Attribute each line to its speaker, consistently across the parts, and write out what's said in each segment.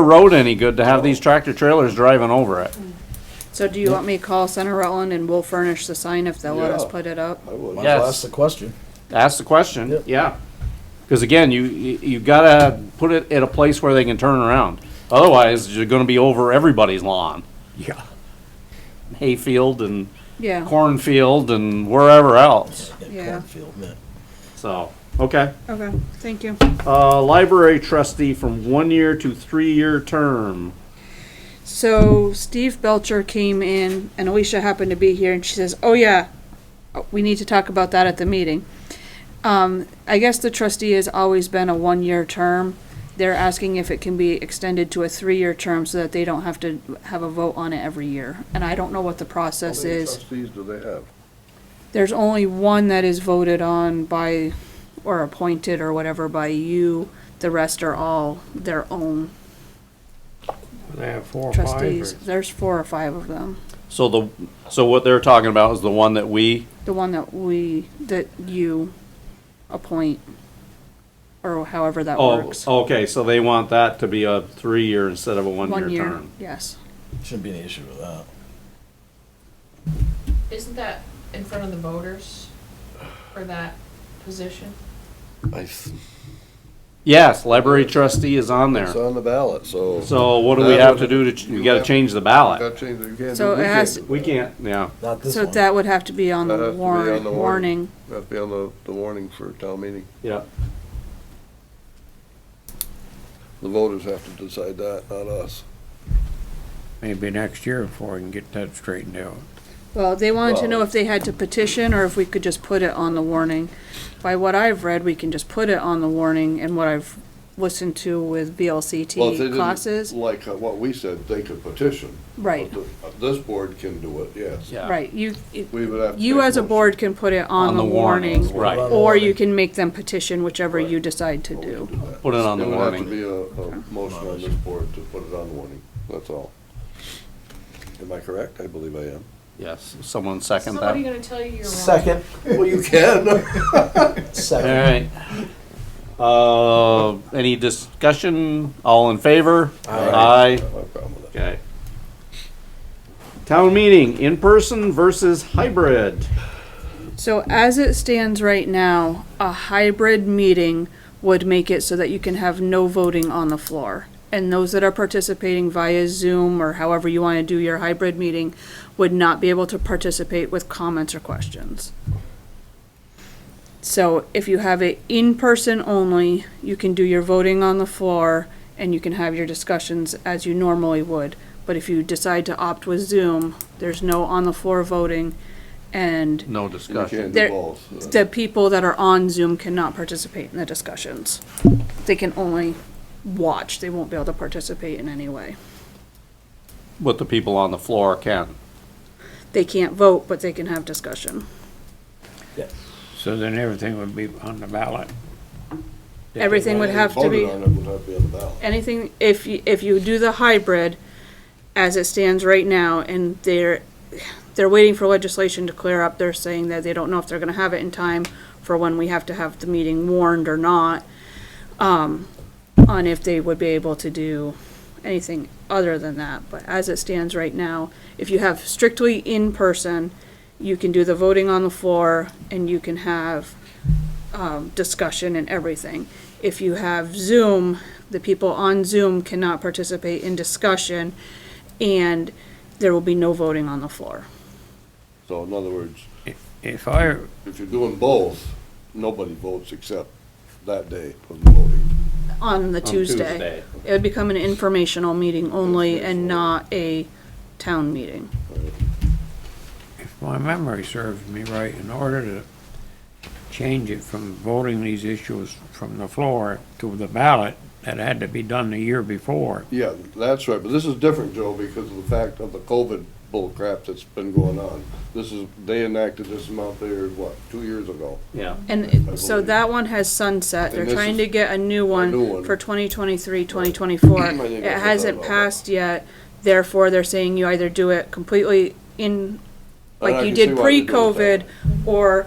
Speaker 1: road any good to have these tractor trailers driving over it.
Speaker 2: So do you want me to call Center Rutland and we'll furnish the sign if they'll let us
Speaker 3: Yeah.
Speaker 2: put it up?
Speaker 3: I would,
Speaker 1: Yes.
Speaker 3: I'll ask the question.
Speaker 1: Ask the question,
Speaker 3: Yep.
Speaker 1: yeah. Because again, you, you you gotta put it at a place where they can turn around. Otherwise, you're gonna be over everybody's lawn.
Speaker 4: Yeah.
Speaker 1: Hayfield and
Speaker 2: Yeah,
Speaker 1: cornfield and wherever else,
Speaker 2: Yeah.
Speaker 3: Cornfield, man.
Speaker 1: so, okay.
Speaker 2: okay, thank you.
Speaker 1: Uh, library trustee from one year to three-year term.
Speaker 2: So Steve Belcher came in and Alicia happened to be here and she says, oh yeah, we need to talk about that at the meeting. Um, I guess the trustee has always been a one-year term. They're asking if it can be extended to a three-year term so that they don't have to have a vote on it every year. And I don't know what the process is.
Speaker 5: trustees do they have?
Speaker 2: There's only one that is voted on by, or appointed or whatever by you. The rest are all their own
Speaker 4: They have four or five.
Speaker 2: trustees.
Speaker 4: or-
Speaker 2: There's four or five of them.
Speaker 1: So the, so what they're talking about is the one that we,
Speaker 2: The one that we, that you appoint, or however that
Speaker 1: oh,
Speaker 2: works.
Speaker 1: okay, so they want that to be a three-year instead of a
Speaker 2: One
Speaker 1: one-year
Speaker 2: year,
Speaker 1: term.
Speaker 2: yes.
Speaker 3: Shouldn't be any issue with that.
Speaker 6: Isn't that in front of the voters for that position?
Speaker 5: I s-
Speaker 1: Yes, library trustee is on
Speaker 5: It's
Speaker 1: there.
Speaker 5: on the ballot, so.
Speaker 1: So what do we
Speaker 5: That
Speaker 1: have to
Speaker 5: would-
Speaker 1: do to, ch- you gotta
Speaker 5: have-
Speaker 1: change the
Speaker 5: You
Speaker 1: ballot.
Speaker 5: gotta change it, you can't
Speaker 2: So
Speaker 5: do, we
Speaker 2: it has
Speaker 5: can't
Speaker 2: to-
Speaker 5: do.
Speaker 1: We can't, yeah.
Speaker 3: Not this
Speaker 2: So
Speaker 3: one.
Speaker 2: that would have to be on
Speaker 5: That
Speaker 2: the
Speaker 5: has to be on
Speaker 2: warrant,
Speaker 5: the warrant.
Speaker 2: warning.
Speaker 5: That'd be on the, the warning for town meeting.
Speaker 1: Yeah.
Speaker 5: The voters have to decide that, not us.
Speaker 4: Maybe next year before we can get that straightened out.
Speaker 2: Well, they wanted to know
Speaker 5: Well-
Speaker 2: if they had to petition or if we could just put it on the warning. By what I've read, we can just put it on the warning and what I've listened to with
Speaker 5: Well, if they
Speaker 2: VLCT
Speaker 5: didn't
Speaker 2: classes.
Speaker 5: Like uh, what we said, they could petition.
Speaker 2: Right,
Speaker 5: But the- uh, This board can do it, yes.
Speaker 1: Yeah.
Speaker 2: right. You, it-
Speaker 5: We would have to.
Speaker 2: you
Speaker 5: make
Speaker 2: as a
Speaker 5: motion.
Speaker 2: board can put it on the warning.
Speaker 1: Right.
Speaker 2: Or you can make them petition whichever you
Speaker 5: Right.
Speaker 2: decide to
Speaker 5: But we
Speaker 2: do.
Speaker 5: can that.
Speaker 1: Put it on the warning.
Speaker 5: There would have to be a, a motion on this board to put it on the warning, that's all. Am I correct? I believe I am.
Speaker 1: Yes, someone second that.
Speaker 6: Somebody gonna tell you you're wrong.
Speaker 3: Second,
Speaker 5: Well, you can.
Speaker 1: All
Speaker 3: second.
Speaker 1: right. Uh, any discussion? All in favor?
Speaker 3: Aye.
Speaker 1: Aye.
Speaker 5: No problem with that.
Speaker 1: Okay. Town meeting, in person versus hybrid.
Speaker 2: So as it stands right now, a hybrid meeting would make it so that you can have no voting on the floor. And those that are participating via Zoom or however you want to do your hybrid meeting would not be able to participate with comments or questions. So if you have it in person only, you can do your voting on the floor and you can have your discussions as you normally would. But if you decide to opt with Zoom, there's no on the floor voting and
Speaker 1: No
Speaker 5: You can
Speaker 1: discussion.
Speaker 5: do
Speaker 2: There-
Speaker 5: both.
Speaker 2: the people that are on Zoom cannot participate in the discussions. They can only watch, they won't be able to participate in any way.
Speaker 1: But the people on the floor can.
Speaker 2: They can't vote, but they can have discussion.
Speaker 4: So then everything would be on the ballot.
Speaker 2: Everything would have to be,
Speaker 5: Voted on it would have to be on the ballot.
Speaker 2: anything, if, you- if you do the hybrid as it stands right now, and they're, they're waiting for legislation to clear up, they're saying that they don't know if they're gonna have it in time for when we have to have the meeting warned or not, um, on if they would be able to do anything other than that, but as it stands right now, if you have strictly in person, you can do the voting on the floor and you can have, um, discussion and everything. If you have Zoom, the people on Zoom cannot participate in discussion and there will be no voting on the floor.
Speaker 5: So in other words,
Speaker 4: If I,
Speaker 5: if you're doing both, nobody votes except that day of the voting.
Speaker 2: on the
Speaker 1: on
Speaker 2: Tuesday. It would become an informational meeting only and not a town meeting.
Speaker 4: if my memory serves me right, in order to change it from voting these issues from the floor to the ballot, that had to be done the year before.
Speaker 5: Yeah, that's right, but this is different, Joe, because of the fact of the COVID bullcrap that's been going on. This is, they enacted this amount there, what, two years ago?
Speaker 1: Yeah.
Speaker 2: And it- so that one has sunset. They're
Speaker 5: And this
Speaker 2: trying
Speaker 5: is
Speaker 2: to get a new
Speaker 5: new
Speaker 2: one
Speaker 5: one.
Speaker 2: for 2023,
Speaker 5: I
Speaker 2: 2024.
Speaker 5: think I
Speaker 2: It
Speaker 5: forgot
Speaker 2: hasn't
Speaker 5: about that.
Speaker 2: passed yet. Therefore, they're saying you either do it completely in,
Speaker 5: And I
Speaker 2: like you
Speaker 5: can see
Speaker 2: did
Speaker 5: why they do it that
Speaker 2: pre-COVID,
Speaker 5: way.
Speaker 2: or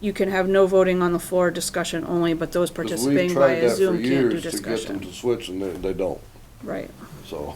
Speaker 2: you can have no voting on the floor, discussion only, but those
Speaker 5: 'Cause we've
Speaker 2: participating
Speaker 5: tried
Speaker 2: via
Speaker 5: that for
Speaker 2: Zoom can't do
Speaker 5: years To get them
Speaker 2: discussion.
Speaker 5: to switch and they, they don't.
Speaker 2: Right.
Speaker 5: so.